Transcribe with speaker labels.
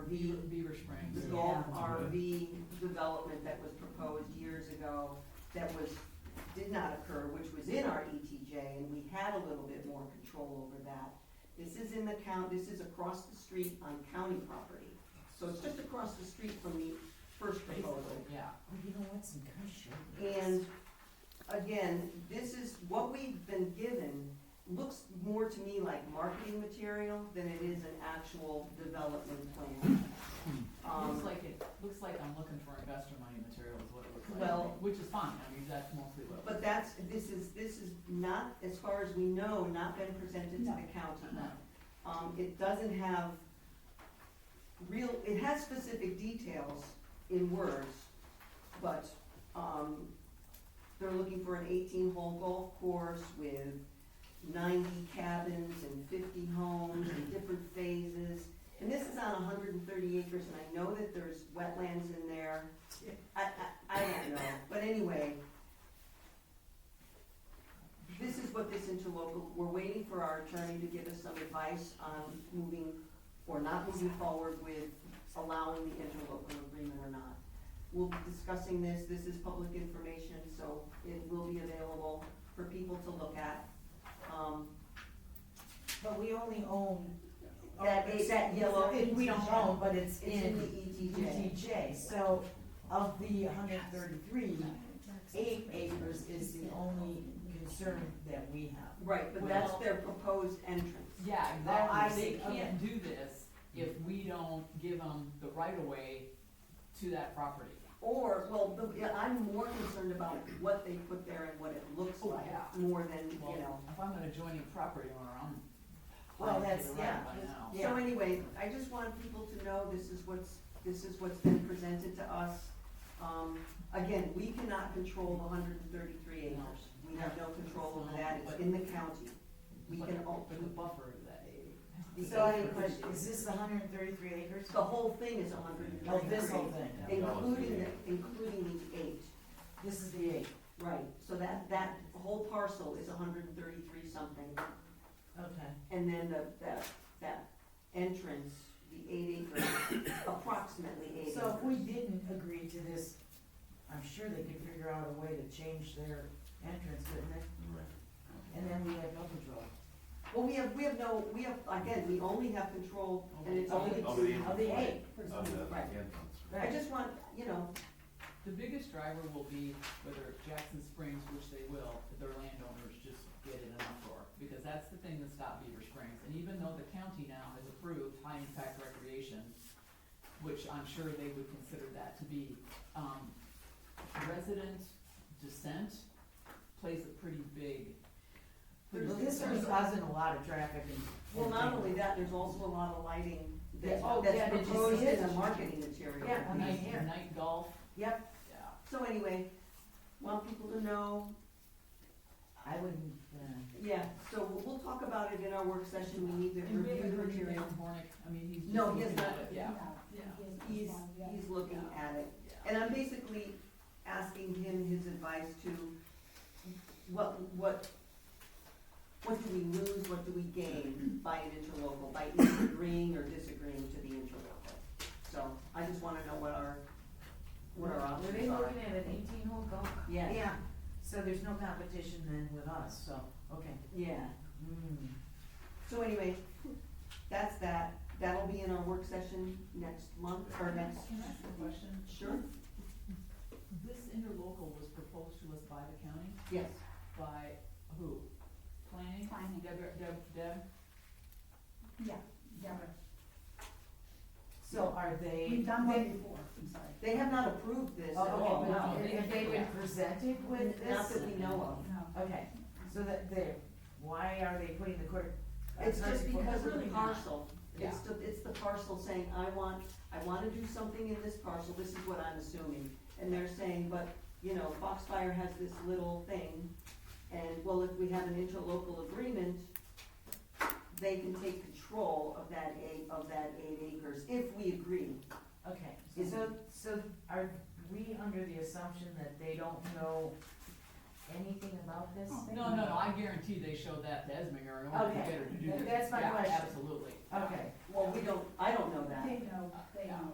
Speaker 1: Beaver, Beaver
Speaker 2: Yeah.
Speaker 1: Springs, that RV development that was proposed years ago that was, did not occur, which was in our ETJ, and we had a little bit more control over that. This is in the count, this is across the street on county property, so it's just across the street from the first proposal.
Speaker 2: Yeah.
Speaker 3: Oh, you know what, some guy showed me.
Speaker 1: And again, this is, what we've been given looks more to me like marketing material than it is an actual development plan.
Speaker 2: Looks
Speaker 1: Um,
Speaker 2: like it, looks like I'm looking for investor money material is what it looks like.
Speaker 1: Well-
Speaker 2: Which is fine, I mean, that's mostly what.
Speaker 1: But that's, this is, this is not, as far as we know, not been presented to the county.
Speaker 2: No.
Speaker 1: Um, it doesn't have real, it has specific details in words, but, um, they're looking for an eighteen-hole golf course with ninety cabins and fifty homes in different phases. And this is on hundred and thirty acres, and I know that there's wetlands in there. I, I, I don't know, but anyway, this is what this interlocal, we're waiting for our attorney to give us some advice on moving or not moving forward with allowing the interlocal agreement or not. We'll be discussing this, this is public information, so it will be available for people to look at. Um,
Speaker 3: But we only own.
Speaker 1: That-
Speaker 3: oh, it's-
Speaker 1: that yellow
Speaker 3: it- We don't
Speaker 1: ETJ.
Speaker 3: own, but it's
Speaker 1: It's in the E
Speaker 3: in
Speaker 2: E
Speaker 1: ETJ.
Speaker 3: ETJ, so of the hundred thirty-three, eight acres is the only concern that we have.
Speaker 1: Right, but that's
Speaker 2: Well-
Speaker 1: their proposed entrance. oh,
Speaker 2: Yeah,
Speaker 3: I
Speaker 2: exactly,
Speaker 3: see,
Speaker 2: they can't do this if we don't give them the right of way to that property.
Speaker 1: Or, well, the- yeah, I'm more concerned about what they put there and what it looks
Speaker 2: Oh,
Speaker 1: like,
Speaker 2: yeah.
Speaker 1: more than,
Speaker 2: Well,
Speaker 1: you know.
Speaker 2: If I'm an adjoining property owner, I'm.
Speaker 3: Well,
Speaker 2: I'm
Speaker 3: that's-
Speaker 2: to the right
Speaker 3: yeah,
Speaker 2: by
Speaker 3: it's-
Speaker 2: now.
Speaker 3: yeah.
Speaker 1: So anyway, I just want people to know this is what's, this is what's been presented to us. Um, again, we cannot control the hundred and thirty-three acres. We have no control over that, it's in the county. We
Speaker 2: But-
Speaker 1: can, al-
Speaker 2: But the buffer is that eight.
Speaker 3: So I have a question, is this the hundred and thirty-three acres?
Speaker 1: the whole thing is hundred and
Speaker 3: Oh,
Speaker 1: thirty-three.
Speaker 3: this whole thing,
Speaker 1: Including, the- including the eight,
Speaker 3: this is the eight,
Speaker 1: right, so that, that whole parcel is hundred and thirty-three something.
Speaker 3: okay.
Speaker 1: And then the, that, that entrance, the eight acres, approximately eight acres.
Speaker 3: So if we didn't agree to this, I'm sure they could figure out a way to change their entrance, couldn't they? And then we have no control
Speaker 1: Well, we have, we have no, we have, again, we only have control, and it's
Speaker 2: Over
Speaker 1: only
Speaker 2: the-
Speaker 4: over the-
Speaker 1: to.
Speaker 3: of the eight.
Speaker 1: Right. I
Speaker 3: Right,
Speaker 1: just want, you know,
Speaker 2: The biggest driver will be whether Jackson Springs, which they will, their landowners just get in an uproar. Because that's the thing that stopped Beaver Springs, and even though the county now has approved high impact recreation, which I'm sure they would consider that to be, um, resident dissent plays a pretty big.
Speaker 3: well, this is causing a lot of traffic and.
Speaker 1: well, not only that, there's also a lot of lighting that,
Speaker 3: Yeah, oh, yeah,
Speaker 1: that's
Speaker 3: did you see
Speaker 1: proposed
Speaker 3: it?
Speaker 1: in the marketing material.
Speaker 3: Yeah, I mean,
Speaker 2: Night,
Speaker 3: here.
Speaker 2: night golf,
Speaker 3: Yep,
Speaker 2: yeah.
Speaker 1: So anyway, want people to know,
Speaker 3: I wouldn't, uh.
Speaker 1: yeah, so we'll, we'll talk about it in our work session, we need to
Speaker 2: And we
Speaker 1: review
Speaker 2: haven't
Speaker 1: the
Speaker 2: heard anything
Speaker 1: material.
Speaker 2: from Hornick, I mean, he's just
Speaker 1: No, he has
Speaker 2: looking at
Speaker 1: not.
Speaker 2: it, yeah, yeah,
Speaker 1: He's, he's looking at it.
Speaker 2: yeah.
Speaker 1: And I'm basically asking him his advice to, what, what, what do we lose, what do we gain by an interlocal, by either agreeing or disagreeing to the interlocal? So I just wanna know what our, what our
Speaker 3: Were
Speaker 1: options
Speaker 3: they
Speaker 1: are.
Speaker 3: looking at an eighteen hole golf?
Speaker 1: Yeah,
Speaker 3: Yeah, so there's no competition then with us, so, okay.
Speaker 1: yeah.
Speaker 3: Mm.
Speaker 1: So anyway, that's that. That'll be in our work session next month, or next,
Speaker 2: Can I ask a question?
Speaker 1: sure,
Speaker 2: This interlocal was proposed to us by the county,
Speaker 1: yes.
Speaker 2: by who? Planning?
Speaker 5: Planning.
Speaker 2: Deb, Deb, Deb?
Speaker 5: Yeah, yeah,
Speaker 3: So are they?
Speaker 5: we've done one before, I'm sorry.
Speaker 1: They have not approved this at all,
Speaker 3: Oh, okay,
Speaker 1: no.
Speaker 3: but if they
Speaker 2: Yeah.
Speaker 3: were presented with
Speaker 1: Not
Speaker 3: this?
Speaker 1: that we know of.
Speaker 5: No.
Speaker 3: Okay, so that they're, why are they putting the court? uh,
Speaker 1: It's just
Speaker 3: court-
Speaker 1: because of the
Speaker 2: Really not.
Speaker 1: parcel. It's the, it's the parcel saying, I want, I wanna do something in this parcel, this is what I'm assuming. And they're saying, but, you know, Foxfire has this little thing, and well, if we have an interlocal agreement, they can take control of that eight, of that eight acres, if we agree.
Speaker 3: Okay, so, so are we under the assumption that they don't know anything about this? thing?
Speaker 2: Oh, No, no, no, I guarantee they showed that to Esminger in order to
Speaker 3: Okay,
Speaker 2: get her to do
Speaker 3: that-
Speaker 2: this.
Speaker 3: that's my
Speaker 2: Yeah,
Speaker 3: question.
Speaker 2: Absolutely.
Speaker 3: Okay,
Speaker 1: Well, we don't, I don't know that.
Speaker 5: They know, they